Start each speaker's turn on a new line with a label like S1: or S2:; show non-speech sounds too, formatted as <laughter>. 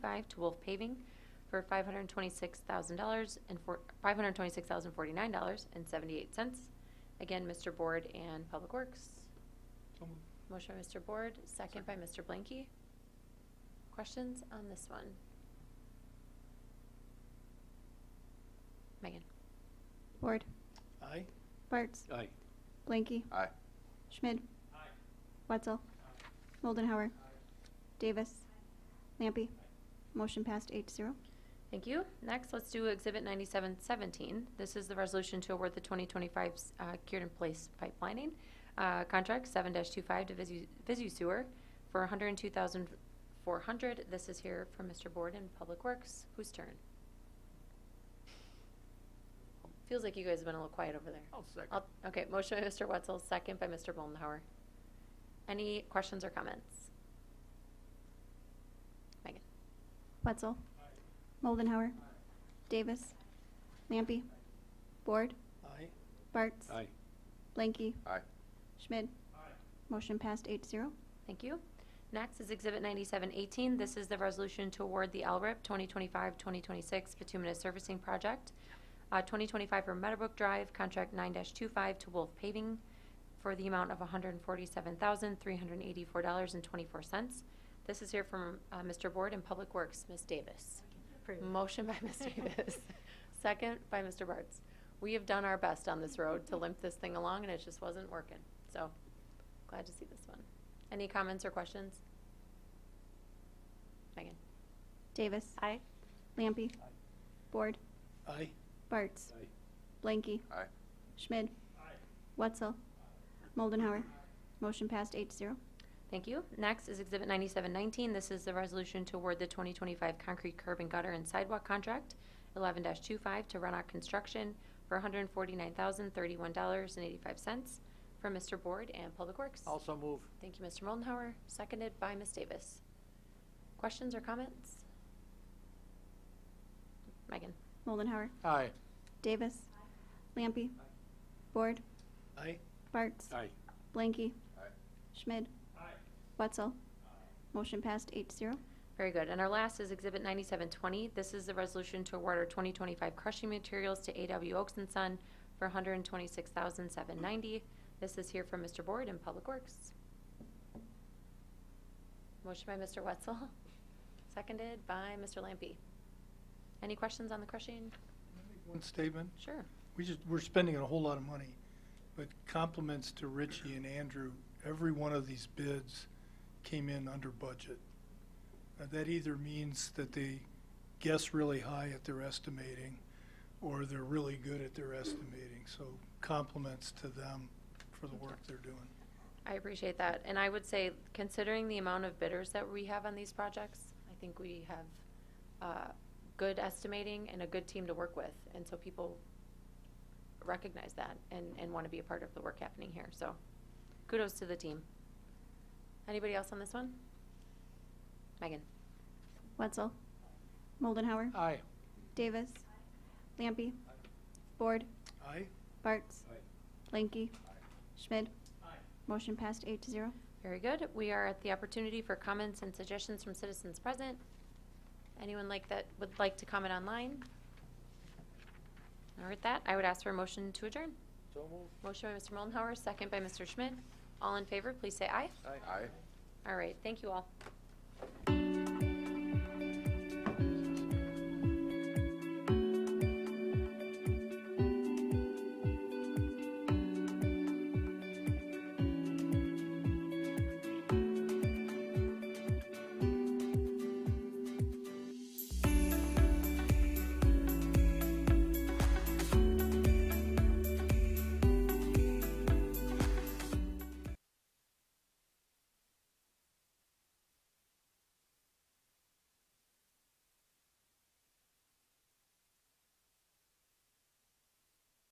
S1: five to Wolf Paving for five hundred and twenty-six thousand dollars and four, five hundred and twenty-six thousand forty-nine dollars and seventy-eight cents. Again, Mr. Board and Public Works.
S2: So moved.
S1: Motion by Mr. Board, second by Mr. Blanky. Questions on this one? Megan?
S3: Ward.
S2: Aye.
S3: Bartz.
S2: Aye.
S3: Blanky.
S4: Aye.
S3: Schmid. Wetzel. Moldenhauer. Davis. Lampy. Motion passed eight to zero.
S1: Thank you. Next, let's do Exhibit 9717. This is the resolution to award the 2025 uh, cured in place pipelining uh, contract 7-25 to Visu- Visu Sewer for 102400 This is here from Mr. Board in Public Works. Whose turn? Feels like you guys have been a little quiet over there.
S2: I'll second.
S1: I'll- Okay, motion by Mr. Wetzel, second by Mr. Moldenhauer. Any questions or comments? Megan?
S3: Wetzel. Moldenhauer. Davis. Lampy. Ward.
S2: Aye.
S3: Bartz.
S2: Aye.
S3: Blanky.
S4: Aye.
S3: Schmid. Motion passed eight to zero.
S1: Thank you. Next is Exhibit 9718. This is the resolution to award the LRIP 2025-2026 bituminous servicing project, uh, 2025 for Meadowbrook Drive, contract 9-25 to Wolf Paving for the amount of $147,384.24. This is here from uh, Mr. Board and Public Works, Ms. Davis. Motion by <laughs> Ms. Davis, second by Mr. Bartz. We have done our best on this road to limp this thing along, and it just wasn't working. So glad to see this one. Any comments or questions? Megan?
S3: Davis.
S1: Aye.
S3: Lampy. Ward.
S2: Aye.
S3: Bartz.
S2: Aye.
S3: Blanky.
S4: Aye.
S3: Schmid. Wetzel. Moldenhauer. Motion passed eight to zero.
S1: Thank you. Next is Exhibit 9719. This is the resolution to award the 2025 concrete curb and gutter and sidewalk contract, 11-25, to Runout Construction for $149,031.85 from Mr. Board and Public Works.
S2: Also move.
S1: Thank you, Mr. Moldenhauer, seconded by Ms. Davis. Questions or comments? Megan?
S3: Moldenhauer.
S2: Aye.
S3: Davis. Lampy. Ward.
S2: Aye.
S3: Bartz.
S2: Aye.
S3: Blanky.
S4: Aye.
S3: Schmid. Wetzel. Motion passed eight to zero.
S1: Very good. And our last is Exhibit 9720. This is the resolution to award our 2025 crushing materials to AW Oaks and Son for $126,790. This is here from Mr. Board in Public Works. Motion by Mr. Wetzel, <laughs> seconded by Mr. Lampy. Any questions on the crushing?
S5: One statement,
S1: Sure.
S5: we just, we're spending a whole lot of money, but compliments to Richie and Andrew, every one of these bids came in under budget. Uh, That either means that they guess really high at their estimating, or they're really good at their estimating, so compliments to them for the work they're doing.
S1: I appreciate that. And I would say, considering the amount of bidders that we have on these projects, I think we have uh, good estimating and a good team to work with. And so people recognize that and, and want to be a part of the work happening here. So kudos to the team. Anybody else on this one? Megan?
S3: Wetzel. Moldenhauer.
S2: Aye.
S3: Davis. Lampy. Board.
S2: Aye.
S3: Bartz.
S2: Aye.
S3: Blanky. Schmid. Motion passed eight to zero.
S1: Very good. We are at the opportunity for comments and suggestions from citizens present. Anyone like that would like to comment online? Or with that, I would ask for a motion to adjourn.
S2: So move.
S1: Motion by Mr. Moldenhauer, second by Mr. Schmidt. All in favor, please say aye.
S2: Aye.
S4: Aye.
S1: All right, thank you all.